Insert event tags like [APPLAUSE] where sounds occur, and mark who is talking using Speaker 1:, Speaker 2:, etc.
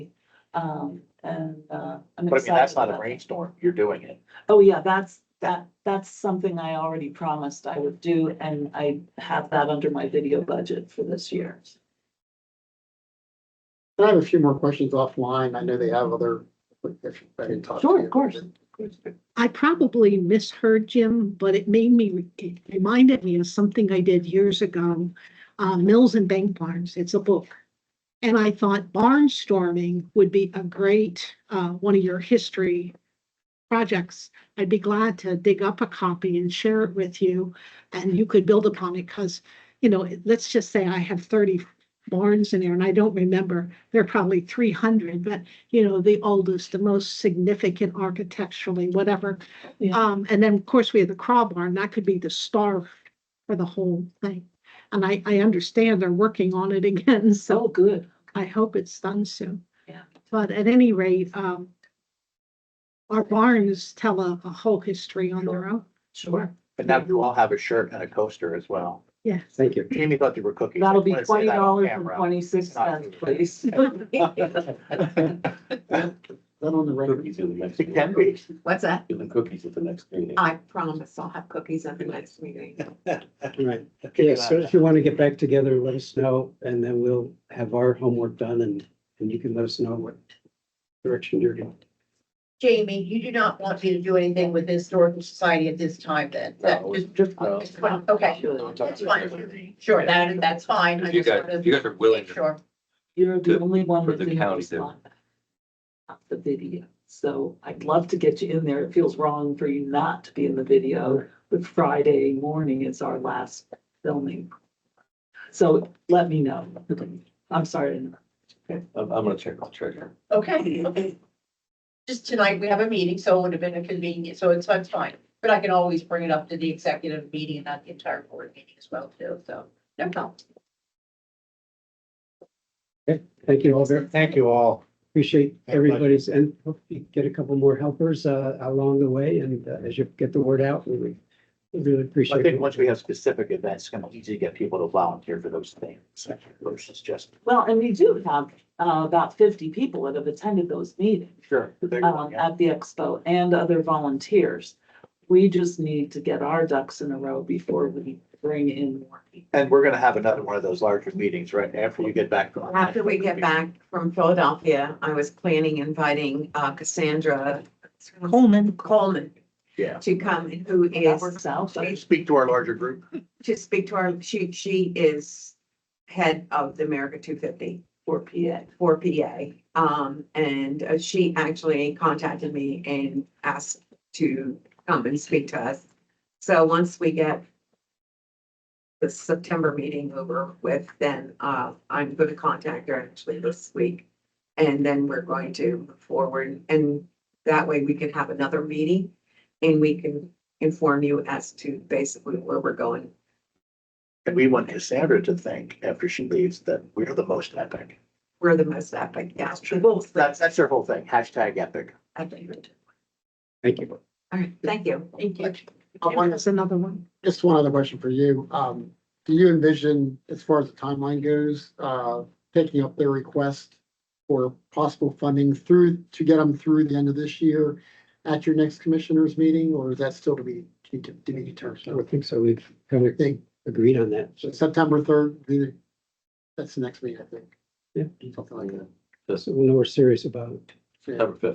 Speaker 1: Um, and, uh, I'm
Speaker 2: But I mean, that's
Speaker 1: excited
Speaker 2: not a
Speaker 1: about that.
Speaker 2: brainstorm, you're doing it.
Speaker 1: Oh, yeah, that's, that, that's something I already promised I would do, and I have that under my video budget for this year.
Speaker 3: I have a few more questions offline. I know they have other, if I can talk to you.
Speaker 1: Sure, of course.
Speaker 4: I probably misheard Jim, but it made me, it reminded me of something I did years ago. Uh, Mills and Bank Barnes, it's a book. And I thought barnstorming would be a great, uh, one of your history projects. I'd be glad to dig up a copy and share it with you and you could build upon it because, you know, let's just say I have thirty barns in there and I don't remember, there are probably three hundred, but you know, the oldest, the most significant architecturally, whatever.
Speaker 1: Yeah.
Speaker 4: Um, and then, of course, we had the craw barn, that could be the star for the whole thing. And I, I understand they're working on it [LAUGHS] again,
Speaker 1: So
Speaker 4: so
Speaker 1: good.
Speaker 4: I hope it's done soon.
Speaker 1: Yeah.
Speaker 4: But at any rate, um, our barns tell a, a whole history on their own.
Speaker 1: Sure.
Speaker 2: But now you all have a shirt and a coaster as well.
Speaker 4: Yes.
Speaker 3: Thank you.
Speaker 2: Jamie thought they were cookies.
Speaker 1: That'll
Speaker 2: I
Speaker 1: be
Speaker 2: wanna say
Speaker 1: twenty
Speaker 2: that on
Speaker 1: dollars and
Speaker 2: camera.
Speaker 1: twenty-six cents, please.
Speaker 3: That on the record.
Speaker 5: Cookies in the next.
Speaker 2: It can be.
Speaker 6: What's that?
Speaker 5: Give them cookies at the next meeting.
Speaker 6: I promise I'll have cookies at the next meeting.
Speaker 7: Right, yeah, so if you want to get back together, let us know, and then we'll have our homework done and, and you can let us know what direction you're going.
Speaker 8: Jamie, you do not want me to do anything with the Historical Society at this time then? That
Speaker 5: No,
Speaker 8: just,
Speaker 5: Just,
Speaker 8: I just want- okay, that's fine. Sure, that, that's fine. I
Speaker 9: If you
Speaker 8: just
Speaker 9: guys-
Speaker 8: wanted
Speaker 9: if you guys are willing to-
Speaker 8: Sure.
Speaker 1: You're the
Speaker 9: To-
Speaker 1: only one
Speaker 9: for
Speaker 1: that
Speaker 9: the
Speaker 1: didn't
Speaker 9: county to-
Speaker 1: respond. back. Not The video, so I'd love to get you in there. It feels wrong for you not to be in the video, but Friday morning is our last filming. So let me know. I'm sorry. to interrupt.
Speaker 5: I'm, I'm gonna check on treasure.
Speaker 8: Okay, okay. Just tonight, we have a meeting, so it would have been inconvenient, so it's, it's fine. But I can always bring it up to the executive meeting and not the entire board meeting as well too, so no problem.
Speaker 7: Thank you all very,
Speaker 2: Thank you all.
Speaker 7: appreciate
Speaker 3: My pleasure.
Speaker 7: everybody's, and hope you get a couple more helpers, uh, along the way, and uh, as you get the word out, we we really appreciate.
Speaker 2: I think
Speaker 7: it.
Speaker 2: once we have specific events, it's gonna be easy to get people to volunteer for those things versus just.
Speaker 1: Well, and we do have uh, about fifty people that have attended those meetings.
Speaker 2: Sure. the bigger one,
Speaker 1: um,
Speaker 2: yeah.
Speaker 1: at the expo and other volunteers. We just need to get our ducks in a row before we bring in more people.
Speaker 2: And we're gonna have another one of those larger meetings right after you get back. from-
Speaker 6: After we get back from Philadelphia, I was planning inviting uh, Cassandra
Speaker 4: Coleman.
Speaker 6: Coleman
Speaker 2: Yeah.
Speaker 6: to come and who
Speaker 1: That
Speaker 6: is,
Speaker 1: works out, but
Speaker 2: Speak to our larger group.
Speaker 6: to speak to our, she, she is head of the America two fifty
Speaker 1: for PA.
Speaker 6: for PA. Um, and uh, she actually contacted me and asked to come and speak to us. So once we get the September meeting over with, then, uh, I'm going to contact her actually this week. And then we're going to move forward and that way we can have another meeting and we can inform you as to basically where we're going.
Speaker 2: And we want Cassandra to think after she leaves that we're the most epic.
Speaker 6: We're the most epic, yeah.
Speaker 2: That's, that's their whole thing, hashtag epic.
Speaker 6: Epic.
Speaker 7: Thank you.
Speaker 6: All right, thank you. Thank
Speaker 3: you.
Speaker 4: Oh, and There's another one.
Speaker 3: Just one other question for you. Um, do you envision, as far as the timeline goes, uh, taking up their request for possible funding through, to get them through the end of this year at your next commissioners meeting, or is that still to be, to to be
Speaker 7: I don't
Speaker 3: determined?
Speaker 7: think so, we've kind
Speaker 3: I
Speaker 7: of
Speaker 3: think
Speaker 7: agreed on that, so.
Speaker 3: September third, the- that's the next meeting, I think.
Speaker 7: Yeah.
Speaker 3: Something like that.
Speaker 7: So we'll know we're serious about it.
Speaker 3: Yeah.
Speaker 5: Number fifth.